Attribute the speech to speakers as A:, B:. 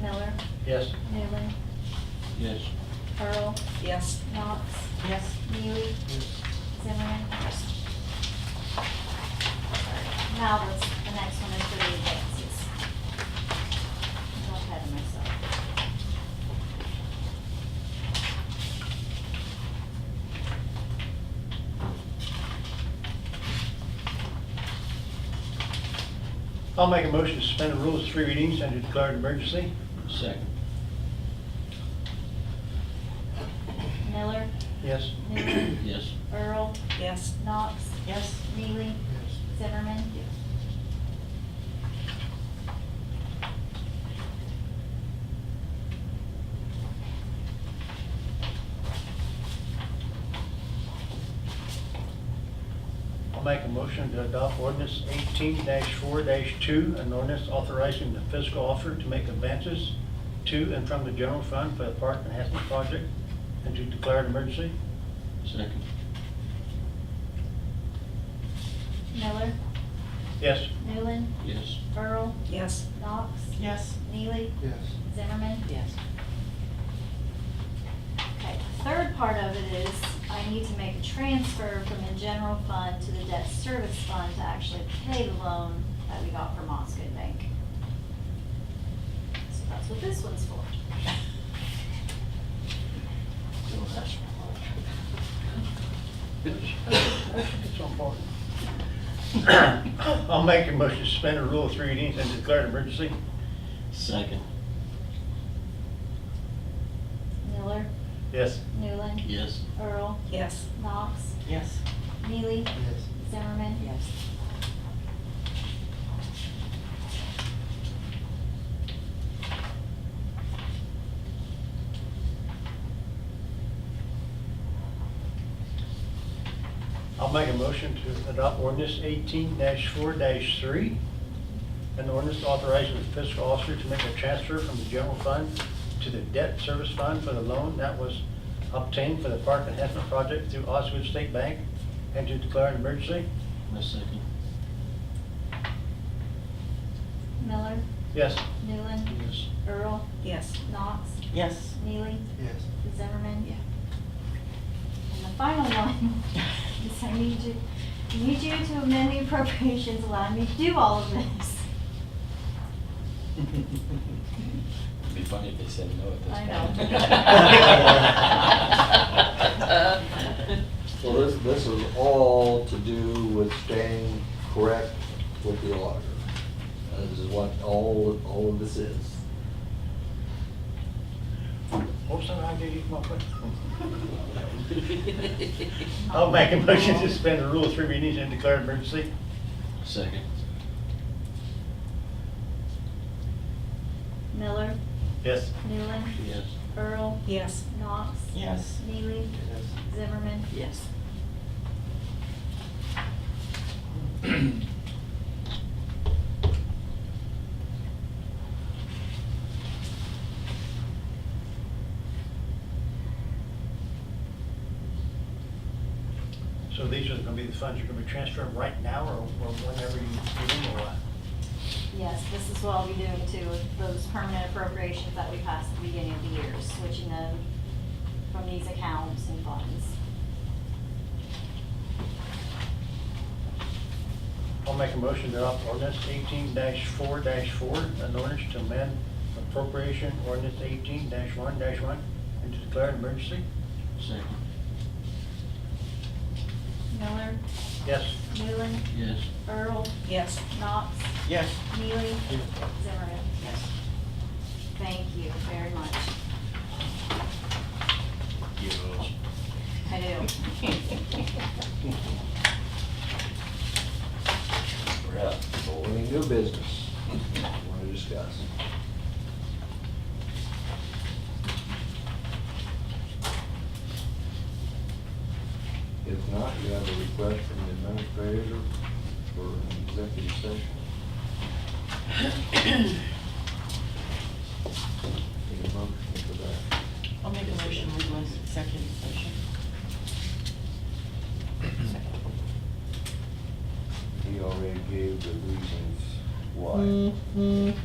A: Miller,
B: Yes.
A: Newman,
B: Yes.
A: Pearl,
C: Yes.
A: Knox,
C: Yes.
A: Neely, Zimmerman. Now, this, the next one is for the advances. I'm ahead of myself.
B: I'll make a motion to suspend the rules, three readings, and to declare an emergency. Second.
A: Miller,
B: Yes.
A: Newman,
B: Yes.
A: Earl,
C: Yes.
A: Knox,
C: Yes.
A: Neely, Zimmerman.
B: I'll make a motion to adopt ordinance eighteen four two, an ordinance authorizing the fiscal officer to make advances to and from the general fund for the park enhancement project, and to declare an emergency. Second.
A: Miller,
B: Yes.
A: Newland,
B: Yes.
A: Earl,
C: Yes.
A: Knox,
C: Yes.
A: Neely,
B: Yes.
A: Zimmerman.
C: Yes.
A: Okay, the third part of it is I need to make a transfer from the general fund to the debt service fund to actually pay the loan that we got from Moscow Bank. So that's what this one's for.
B: So important. I'll make a motion to suspend the rule of three readings and declare an emergency.
D: Second.
A: Miller,
B: Yes.
A: Newland,
D: Yes.
A: Earl,
C: Yes.
A: Knox,
C: Yes.
A: Neely,
B: Yes.
A: Zimmerman.
C: Yes.
B: I'll make a motion to adopt ordinance eighteen four three. An ordinance authorizing the fiscal officer to make a transfer from the general fund to the debt service fund for the loan that was obtained for the park enhancement project through Osgood State Bank and to declare an emergency.
D: My second.
A: Miller,
B: Yes.
A: Newland,
D: Yes.
A: Earl,
C: Yes.
A: Knox,
C: Yes.
A: Neely,
B: Yes.
A: Zimmerman.
C: Yeah.
A: And the final one is I need you, I need you to amend the appropriations, allow me to do all of this.
D: It'd be funny if they said no at this
A: I
D: point.
C: know.
E: So this, this is all to do with staying correct with the auditor. Uh, This is what all, all of this is.
B: Oops, I gave you my question. I'll make a motion to suspend the rule of three readings and declare an emergency.
D: Second.
A: Miller,
B: Yes.
A: Newland,
D: Yes.
A: Earl,
C: Yes.
A: Knox,
C: Yes.
A: Neely, Zimmerman.
C: Yes.
B: So these are gonna be the funds you're gonna be transferring right now or or whenever you do them or what?
A: Yes, this is what I'll be doing too with those permanent appropriations that we passed at the beginning of the year, switching them from these accounts and funds.
B: I'll make a motion to adopt ordinance eighteen four four, an ordinance to amend appropriation ordinance eighteen one one and to declare an emergency.
D: Second.
A: Miller,
B: Yes.
A: Newland,
D: Yes.
A: Earl,
C: Yes.
A: Knox,
B: Yes.
A: Neely, Zimmerman.
C: Yes.
A: Thank you very much.
D: Yes.
A: I do.
D: We're up.
E: So any new business you want to discuss? If not, you have a request from the administrator for an executive session. Need a motion for that?
F: I'll make a motion with my executive session.
C: Mm-hmm.
E: He already gave the reasons why.